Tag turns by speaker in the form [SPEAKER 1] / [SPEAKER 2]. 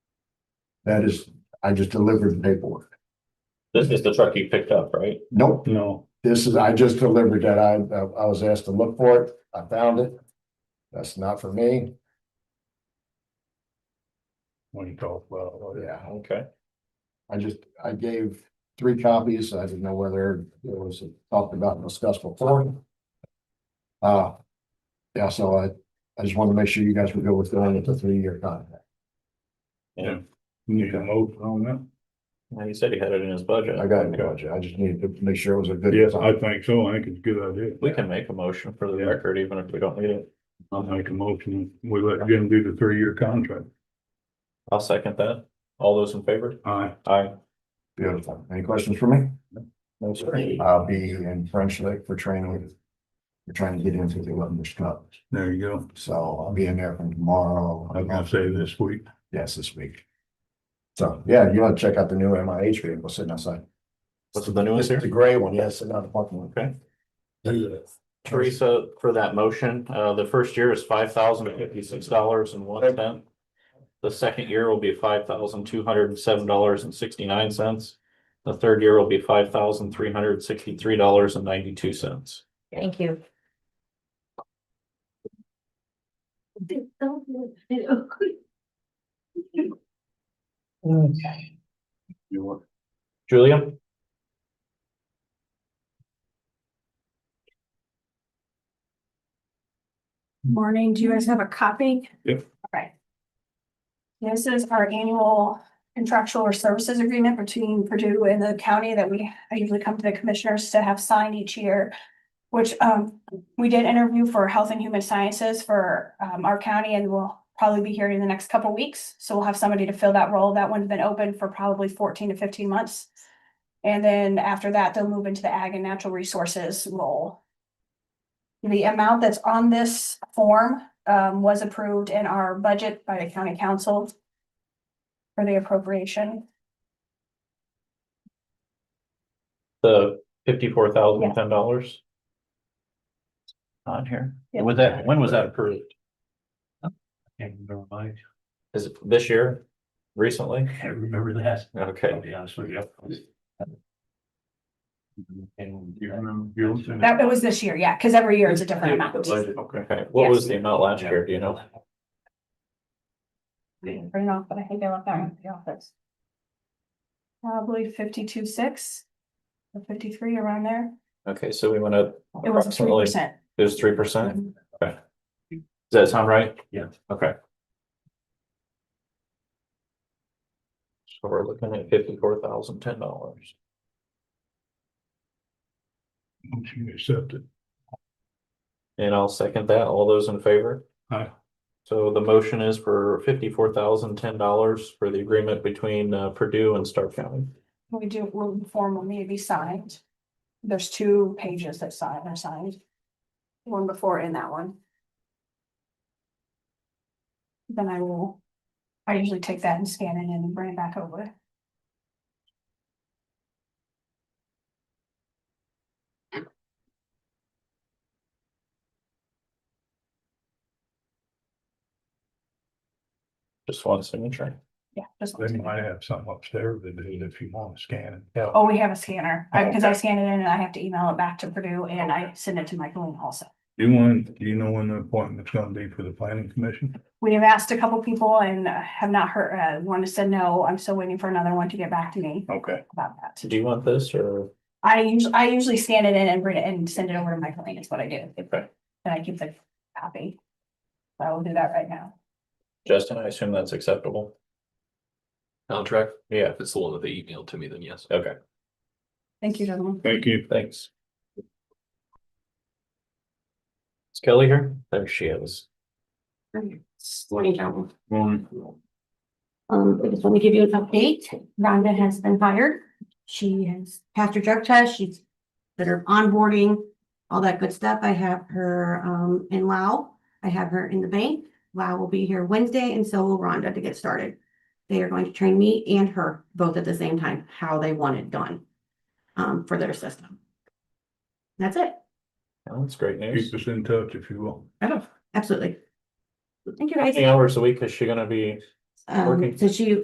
[SPEAKER 1] That is, I just delivered the paperwork.
[SPEAKER 2] This is the truck you picked up, right?
[SPEAKER 1] Nope,
[SPEAKER 3] No,
[SPEAKER 1] this is, I just delivered that. I, I was asked to look for it. I found it. That's not for me.
[SPEAKER 3] when you call, well, oh, yeah,
[SPEAKER 1] Yeah,
[SPEAKER 2] Okay.
[SPEAKER 1] I just, I gave three copies. I didn't know whether it was talked about and discussed before. Uh, yeah, so I, I just wanted to make sure you guys were good with going into three-year contract.
[SPEAKER 3] you need a motion on that?
[SPEAKER 2] Well, He said he had it in his budget.
[SPEAKER 1] I got it, gotcha. I just needed to make sure it was a good.
[SPEAKER 3] Yes, I think so. I think it's a good idea.
[SPEAKER 2] We can make a motion for the
[SPEAKER 3] Yeah.
[SPEAKER 2] record, even if we don't need it.
[SPEAKER 3] I'll make a motion. We let Jim do the three-year contract.
[SPEAKER 2] I'll second that. All those in favor?
[SPEAKER 3] Aye.
[SPEAKER 2] Aye.
[SPEAKER 1] Beautiful. Any questions for me?
[SPEAKER 2] No, sir.
[SPEAKER 1] I'll be in French Lake for training. We're trying to get into the Londoners Cup,
[SPEAKER 3] There you go.
[SPEAKER 1] so I'll be in there from tomorrow. uh,
[SPEAKER 3] I was gonna say this week.
[SPEAKER 1] Yes, this week. So, yeah, you want to check out the new MIH vehicle sitting outside.
[SPEAKER 2] What's the new one
[SPEAKER 1] It's
[SPEAKER 2] here?
[SPEAKER 1] the gray one, yeah, sitting out the parking lot.
[SPEAKER 2] Okay. Teresa, for that motion, uh, the first year is five thousand fifty-six dollars and one cent. The second year will be five thousand two hundred and seven dollars and sixty-nine cents. The third year will be five thousand three hundred sixty-three dollars and ninety-two cents.
[SPEAKER 4] Thank you.
[SPEAKER 5] Okay,
[SPEAKER 3] You want-
[SPEAKER 2] Julia?
[SPEAKER 6] Morning, do you guys have a copy?
[SPEAKER 3] Yep.
[SPEAKER 6] Okay. This is our annual contractual or services agreement between Purdue and the county that we, I usually come to the commissioners to have signed each year. Which, um, we did interview for Health and Human Sciences for, um, our county and we'll probably be here in the next couple weeks. So we'll have somebody to fill that role. That one's been open for probably fourteen to fifteen months. And then after that, they'll move into the ag and natural resources role. The amount that's on this form um was approved in our budget by the county council. For the appropriation,
[SPEAKER 2] The fifty-four thousand ten dollars? On here?
[SPEAKER 6] Yeah.
[SPEAKER 2] Was that, when was that approved?
[SPEAKER 5] can't remember my,
[SPEAKER 2] Is it this year? Recently?
[SPEAKER 5] can't remember that,
[SPEAKER 2] Okay.
[SPEAKER 5] I'll be honest with you. And
[SPEAKER 3] You
[SPEAKER 5] you're
[SPEAKER 3] remember Gil's in it?
[SPEAKER 6] that it was this year, yeah, because every year it's a different amount. Bring
[SPEAKER 2] Okay, what was the amount last year, do you know?
[SPEAKER 6] it off, but I think I left that one at the office. Probably fifty-two, six. Or fifty-three around there,
[SPEAKER 2] Okay, so we went up.
[SPEAKER 6] it was three
[SPEAKER 2] approximately-
[SPEAKER 6] percent.
[SPEAKER 2] It was three percent? Okay. Does that sound right?
[SPEAKER 5] Yeah.
[SPEAKER 2] Okay. So we're looking at fifty-four thousand, ten dollars.
[SPEAKER 3] Motion accepted.
[SPEAKER 2] And I'll second that. All those in favor?
[SPEAKER 3] Aye.
[SPEAKER 2] So the motion is for fifty-four thousand, ten dollars for the agreement between uh, Purdue and Stark County.
[SPEAKER 6] We do, will the form will need to be signed. There's two pages that sign are signed. One before and that one. Then I will, I usually take that and scan it and bring it back over.
[SPEAKER 2] Just one signature.
[SPEAKER 6] Yeah. just
[SPEAKER 3] They might have some upstairs that did if you want to scan it. Yeah.
[SPEAKER 6] Oh, we have a scanner, because I scan it in and I have to email it back to Purdue and I send it to Michaeline also.
[SPEAKER 3] Do you want, do you know when the appointment's gonna be for the planning commission?
[SPEAKER 6] We have asked a couple people and uh, have not heard, uh, one has said no, I'm still waiting for another one to get back to me
[SPEAKER 3] Okay.
[SPEAKER 6] about that.
[SPEAKER 2] Do you want this or?
[SPEAKER 6] I usually, I usually scan it in and bring it and send it over to my client, is what I do,
[SPEAKER 2] Okay.
[SPEAKER 6] and I keep the copy. So I will do that right now.
[SPEAKER 2] Justin, I assume that's acceptable.
[SPEAKER 7] contract.
[SPEAKER 2] Yeah,
[SPEAKER 7] If it's the one that they emailed to me, then yes.
[SPEAKER 2] okay,
[SPEAKER 6] Thank you, gentlemen.
[SPEAKER 3] Thank you.
[SPEAKER 2] thanks. Is Kelly here? There she is.
[SPEAKER 4] Morning, gentlemen. Um, I just want to give you an update. Rhonda has been hired. She has passed her drug test. She's did her onboarding, all that good stuff. I have her um in Lao. I have her in the bank. Lao will be here Wednesday and so will Rhonda to get started. They are going to train me and her both at the same time, how they want it done um for their system. That's it.
[SPEAKER 2] That's great news.
[SPEAKER 3] Keep us in touch if you will.
[SPEAKER 4] Absolutely. Thank you
[SPEAKER 2] How
[SPEAKER 4] guys.
[SPEAKER 2] many hours a week is she gonna be
[SPEAKER 4] Um,
[SPEAKER 2] working.
[SPEAKER 4] so she